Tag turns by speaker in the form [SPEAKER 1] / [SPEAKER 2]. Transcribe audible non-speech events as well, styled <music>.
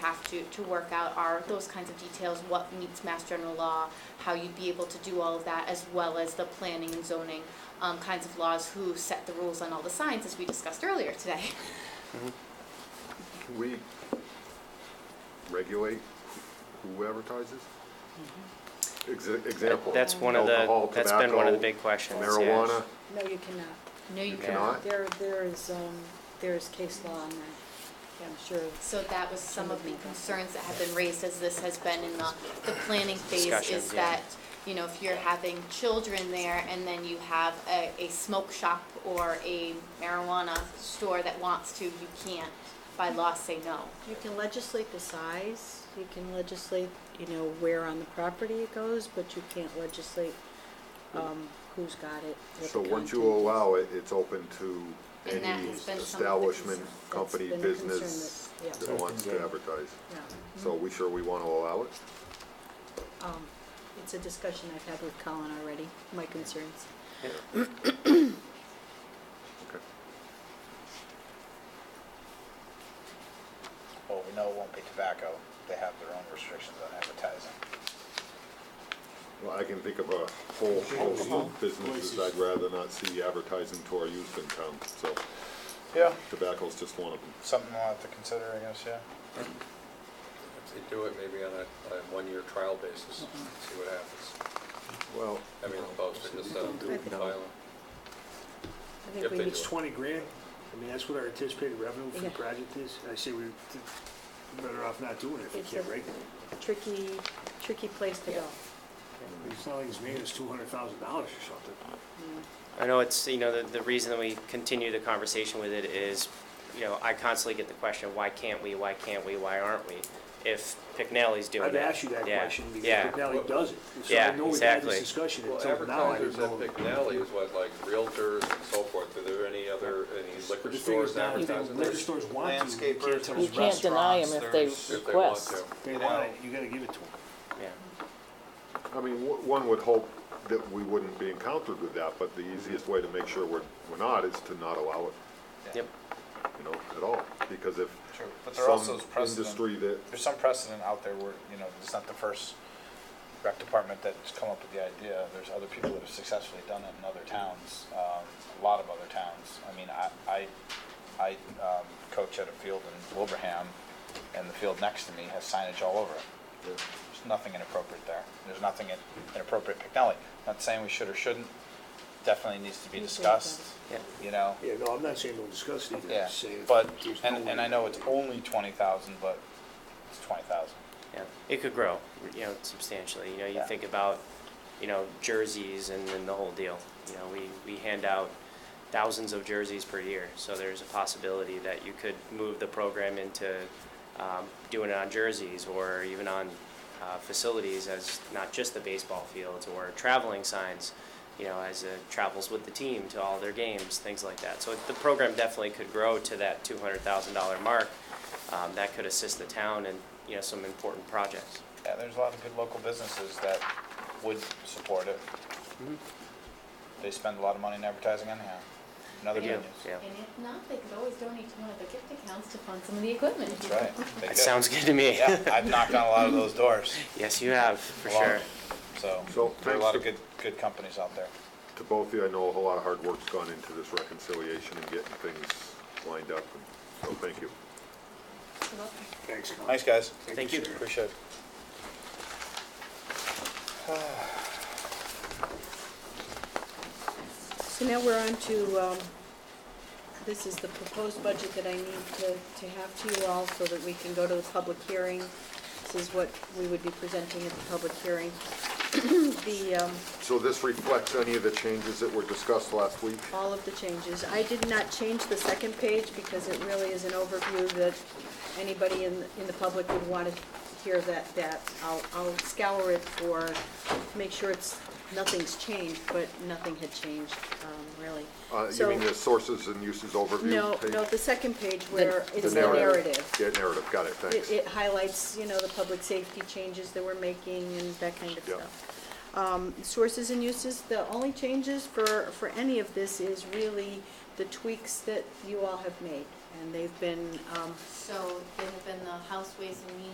[SPEAKER 1] have to, to work out are those kinds of details, what meets mass general law, how you'd be able to do all of that, as well as the planning and zoning um, kinds of laws, who set the rules on all the signs, as we discussed earlier today.
[SPEAKER 2] Can we regulate who advertises? Ex- Example.
[SPEAKER 3] That's one of the,
[SPEAKER 2] alcohol,
[SPEAKER 3] that's been one of the
[SPEAKER 2] tobacco,
[SPEAKER 3] big questions, yes.
[SPEAKER 2] Marijuana,
[SPEAKER 4] No, you cannot.
[SPEAKER 1] No, you
[SPEAKER 2] you
[SPEAKER 3] Yeah.
[SPEAKER 2] cannot?
[SPEAKER 4] There, there is, um, there is case law on that. Yeah, I'm sure.
[SPEAKER 1] So that was some of the concerns that have been raised as this has been in the, the planning phase,
[SPEAKER 3] Discussion,
[SPEAKER 1] is
[SPEAKER 3] yeah.
[SPEAKER 1] that, you know, if you're having children there and then you have a, a smoke shop or a marijuana store that wants to, you can't by law say no.
[SPEAKER 4] You can legislate the size, you can legislate, you know, where on the property it goes, but you can't legislate, um, who's got it, what the
[SPEAKER 2] So once you
[SPEAKER 4] content is.
[SPEAKER 2] allow it, it's open to
[SPEAKER 1] And that
[SPEAKER 2] any
[SPEAKER 1] has been some of the
[SPEAKER 2] establishment,
[SPEAKER 1] concern. That's
[SPEAKER 2] company,
[SPEAKER 4] been a concern
[SPEAKER 2] business
[SPEAKER 4] that- yeah.
[SPEAKER 2] that wants to
[SPEAKER 3] Yeah.
[SPEAKER 2] advertise.
[SPEAKER 4] Yeah,
[SPEAKER 2] So we sure we want to allow it?
[SPEAKER 4] um, it's a discussion I've had with Colin already, my concerns.
[SPEAKER 2] Okay.
[SPEAKER 5] Well, we know it won't be tobacco. They have their own restrictions on advertising.
[SPEAKER 2] Well, I can think of a whole host of businesses I'd rather not see advertising to our youth in town, so
[SPEAKER 5] Yeah.
[SPEAKER 2] tobacco's just one of them.
[SPEAKER 5] Something we'll have to consider, I guess, yeah.
[SPEAKER 6] If they do it, maybe on a, on a one-year trial basis, see what happens.
[SPEAKER 2] Well,
[SPEAKER 6] I mean, posted instead of
[SPEAKER 3] No.
[SPEAKER 6] filing.
[SPEAKER 4] I think
[SPEAKER 6] If
[SPEAKER 4] we need
[SPEAKER 6] they do
[SPEAKER 7] It's
[SPEAKER 6] it.
[SPEAKER 7] twenty grand. I mean, that's what our anticipated revenue for the
[SPEAKER 4] Yeah.
[SPEAKER 7] project is. I say we're better off not doing it if we
[SPEAKER 4] It's
[SPEAKER 7] can't
[SPEAKER 4] a-
[SPEAKER 7] break it.
[SPEAKER 4] tricky, tricky place to go.
[SPEAKER 7] It's not like it's made us two hundred thousand dollars or something.
[SPEAKER 3] I know it's, you know, the, the reason that we continue the conversation with it is, you know, I constantly get the question, why can't we, why can't we, why aren't we? If Picnelli's doing it.
[SPEAKER 7] I've asked you that
[SPEAKER 3] yeah,
[SPEAKER 7] question
[SPEAKER 3] yeah.
[SPEAKER 7] because Valley does it.
[SPEAKER 3] Yeah,
[SPEAKER 7] So I know we've had
[SPEAKER 3] exactly.
[SPEAKER 7] this discussion
[SPEAKER 6] Well,
[SPEAKER 7] until now. I
[SPEAKER 6] advertisers
[SPEAKER 7] didn't know-
[SPEAKER 6] at McNally is what, like realtors and so forth, are there any other, any
[SPEAKER 7] But
[SPEAKER 6] liquor
[SPEAKER 7] the thing is
[SPEAKER 6] stores
[SPEAKER 7] now,
[SPEAKER 6] advertising
[SPEAKER 7] liquor
[SPEAKER 6] this?
[SPEAKER 7] stores want to, you can't
[SPEAKER 5] Landscapers
[SPEAKER 7] tell
[SPEAKER 5] and
[SPEAKER 8] You
[SPEAKER 7] them,
[SPEAKER 8] can't deny them if they
[SPEAKER 5] Restaurants,
[SPEAKER 6] If they want
[SPEAKER 8] request.
[SPEAKER 6] to.
[SPEAKER 7] they want it, you gotta give it to them.
[SPEAKER 3] Yeah,
[SPEAKER 2] I mean, w- one would hope that we wouldn't be encountered with that, but the easiest way to make sure we're, we're not is to not allow it,
[SPEAKER 3] yep,
[SPEAKER 2] you know, at all. Because if
[SPEAKER 5] True, but there also
[SPEAKER 2] some
[SPEAKER 5] is precedent.
[SPEAKER 2] industry that,
[SPEAKER 5] There's some precedent out there where, you know, it's not the first rec department that's come up with the idea. There's other people that have successfully done it in other towns, um, a lot of other towns. I mean, I, I, I um, coach at a field in Wilbraham, and the field next to me has signage all over it. There's nothing inappropriate there. There's nothing in- inappropriate at Pignelli. Not saying we should or shouldn't. Definitely needs to be
[SPEAKER 4] Needs to be looked
[SPEAKER 5] discussed,
[SPEAKER 3] yeah.
[SPEAKER 5] you know?
[SPEAKER 7] Yeah, no, I'm not saying don't discuss it either. I'm
[SPEAKER 5] Yeah,
[SPEAKER 7] just saying
[SPEAKER 5] but,
[SPEAKER 7] there's no
[SPEAKER 5] and, and I
[SPEAKER 7] way.
[SPEAKER 5] know it's only twenty thousand, but it's twenty thousand.
[SPEAKER 3] Yeah, it could grow, you know, substantially. You know, you
[SPEAKER 5] Yeah.
[SPEAKER 3] think about, you know, jerseys and, and the whole deal. You know, we, we hand out thousands of jerseys per year, so there's a possibility that you could move the program into um, doing it on jerseys or even on uh, facilities as not just the baseball fields or traveling signs, you know, as it travels with the team to all their games, things like that. So the program definitely could grow to that two hundred thousand dollar mark. Um, that could assist the town in, you know, some important projects.
[SPEAKER 5] Yeah, there's a lot of good local businesses that would support it. Mm-hmm. They spend a lot of money in advertising anyhow, in other
[SPEAKER 1] They
[SPEAKER 3] Yeah,
[SPEAKER 1] do,
[SPEAKER 5] venues.
[SPEAKER 3] yeah.
[SPEAKER 1] And if not, they could always donate to one of the gift accounts to fund some of the equipment.
[SPEAKER 5] That's right. They
[SPEAKER 3] That
[SPEAKER 5] do.
[SPEAKER 3] sounds good to me.
[SPEAKER 5] Yeah, I've knocked on a lot of those doors.
[SPEAKER 3] Yes, you have, <laughs> for
[SPEAKER 5] a lot
[SPEAKER 3] sure.
[SPEAKER 5] of them.
[SPEAKER 2] So,
[SPEAKER 5] So, there are a
[SPEAKER 2] thanks
[SPEAKER 5] lot of
[SPEAKER 2] to-
[SPEAKER 5] good, good companies out there.
[SPEAKER 2] to both of you, I know a whole lot of hard work's gone into this reconciliation and getting things lined up, and so thank you.
[SPEAKER 7] Thanks, Colin.
[SPEAKER 5] Thanks, guys.
[SPEAKER 3] Thank you.
[SPEAKER 7] sir.
[SPEAKER 5] Appreciate it.
[SPEAKER 4] So now we're on to, um, this is the proposed budget that I need to, to have to you all so that we can go to the public hearing. This is what we would be presenting at the public hearing. <clears throat> The, um,
[SPEAKER 2] So this reflects any of the changes that were discussed last week?
[SPEAKER 4] all of the changes. I did not change the second page because it really is an overview that anybody in, in the public would want to hear that, that. I'll, I'll scour it for, make sure it's, nothing's changed, but nothing had changed, um, really.
[SPEAKER 2] Uh, you
[SPEAKER 4] So-
[SPEAKER 2] mean the sources and uses overview?
[SPEAKER 4] No,
[SPEAKER 2] page?
[SPEAKER 4] no, the second page where
[SPEAKER 2] The
[SPEAKER 4] it's the narrative.
[SPEAKER 2] Yeah, narrative, got it, thanks.
[SPEAKER 4] It, it highlights, you know, the public safety changes that we're making and that kind of
[SPEAKER 2] Yeah.
[SPEAKER 4] stuff. Um, sources and uses, the only changes for, for any of this is really the tweaks that you all have made. and they've been um,
[SPEAKER 1] So there have been the House Ways and Means